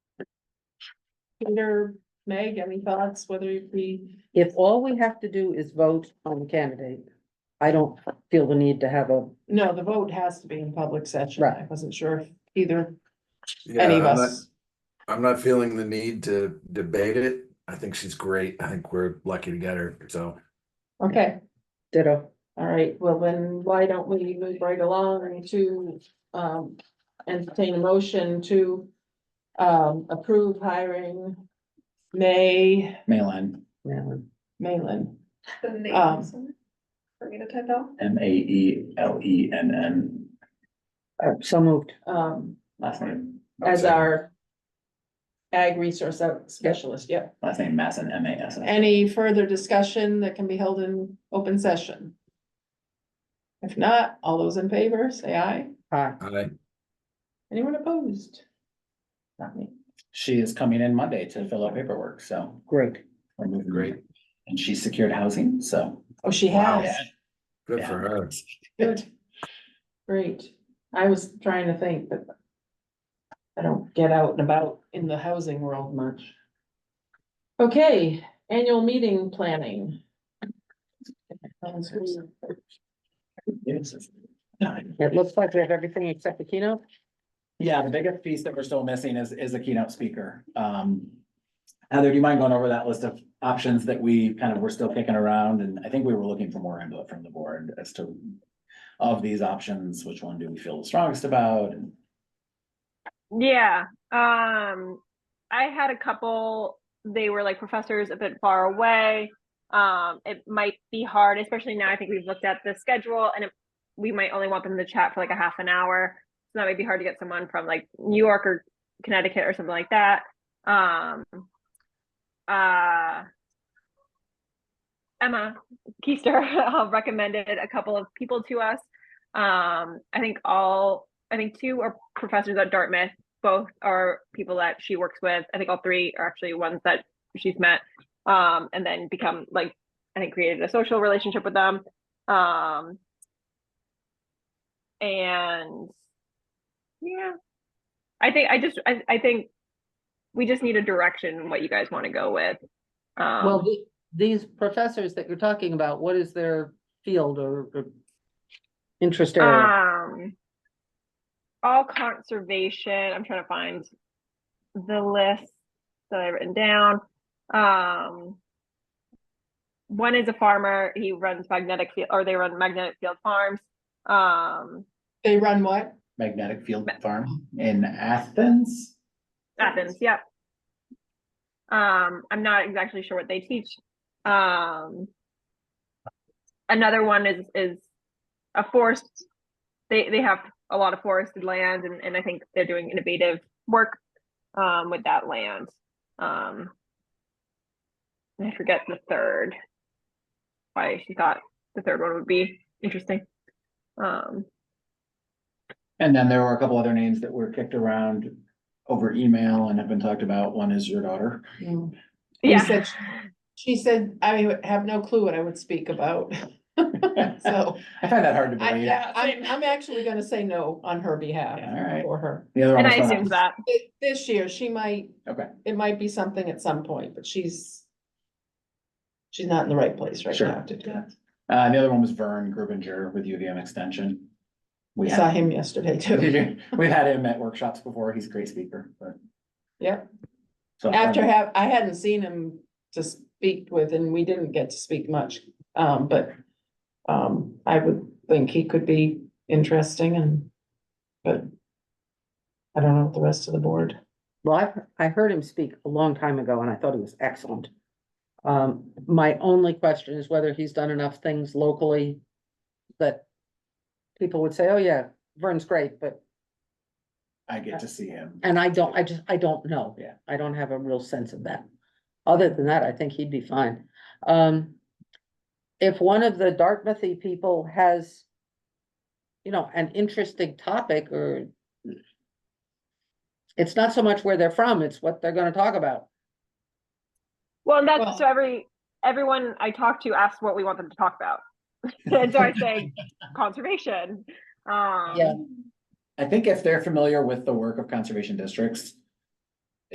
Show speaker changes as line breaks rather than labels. Peter, Meg, any thoughts, whether we,
If all we have to do is vote on the candidate, I don't feel the need to have a,
no, the vote has to be in public session. I
Right.
wasn't sure if either,
Yeah,
any of
I'm not-
us.
I'm not feeling the need to debate it. I think she's great. I think we're lucky to get her, so.
Okay,
ditto.
all right, well then, why don't we move right along to, um, entertain a motion to um, approve hiring May,
Malin,
Malin.
Malin.
The name
Um,
is on it. For me to type out.
M A E L E N N,
Uh, So moved.
um,
last name,
as our ag resource out- specialist, yep.
last name Masson, M A S S.
Any further discussion that can be held in open session? If not, all those in favor, say aye.
Aye.
I,
Anyone opposed? Not me.
She is coming in Monday to fill out paperwork, so.
Great.
we're moving
Great.
And she secured housing, so.
Oh, she
Wow.
has.
good for her.
Good. Great. I was trying to think, but I don't get out and about in the housing world much. Okay, annual meeting planning. Sounds good.
Yes.
It looks like we have everything except the keynote.
Yeah, the biggest piece that we're still missing is, is a keynote speaker. Um, Heather, do you mind going over that list of options that we kind of were still kicking around? And I think we were looking for more input from the board as to of these options, which one do we feel the strongest about? And
Yeah, um, I had a couple, they were like professors a bit far away. Um, it might be hard, especially now, I think we've looked at the schedule and it- we might only want them to chat for like a half an hour. So that might be hard to get someone from like New York or Connecticut or something like that. Um, uh, Emma Keister uh, recommended a couple of people to us. Um, I think all, I think two are professors at Dartmouth both are people that she works with. I think all three are actually ones that she's met um, and then become like, I think created a social relationship with them. Um, and yeah, I think I just, I, I think we just need a direction what you guys want to go with. Um,
Well, the- these professors that you're talking about, what is their field or or interest area?
Um, all conservation, I'm trying to find the list that I've written down. Um, one is a farmer, he runs magnetic field, or they run magnetic field farms. Um,
They run what?
Magnetic Field Farm in Athens?
Athens, yep. Um, I'm not exactly sure what they teach. Um, another one is is a forest. They they have a lot of forested land, and and I think they're doing innovative work um, with that land. Um, and I forget the third. Why she thought the third one would be interesting. Um,
And then there were a couple other names that were kicked around over email and have been talked about. One is your daughter.
You
yeah.
said She said, I have no clue what I would speak about,
I
so
find that hard to
I,
believe.
I- I'm, I'm actually gonna say no on her behalf
Yeah, all right.
for her.
The other one
and I
was someone
assumed
else.
that.
Thi- This year, she might,
Okay,
it might be something at some point, but she's she's not in the right place right
Sure.
now to do that.
uh, the other one was Vern Grubinger with UVM Extension. We
Saw
had,
him yesterday too,
we've had him at workshops before. He's a great speaker, but.
Yep.
So I
after
found-
have, I hadn't seen him to speak with, and we didn't get to speak much, um, but um, I would think he could be interesting and, but I don't know what the rest of the board.
Well, I, I heard him speak a long time ago and I thought he was excellent. Um, my only question is whether he's done enough things locally that people would say, oh yeah, Vern's great, but
I get to see him.
And I don't, I just, I don't know.
Yeah.
I don't have a real sense of that. Other than that, I think he'd be fine. Um. If one of the Dartmouthy people has. You know, an interesting topic or. It's not so much where they're from, it's what they're gonna talk about.
Well, and
Well-
that's so every everyone I talk to asks what we want them to talk about. and so I say conservation. Um
Yeah.
I think if they're familiar with the work of conservation districts,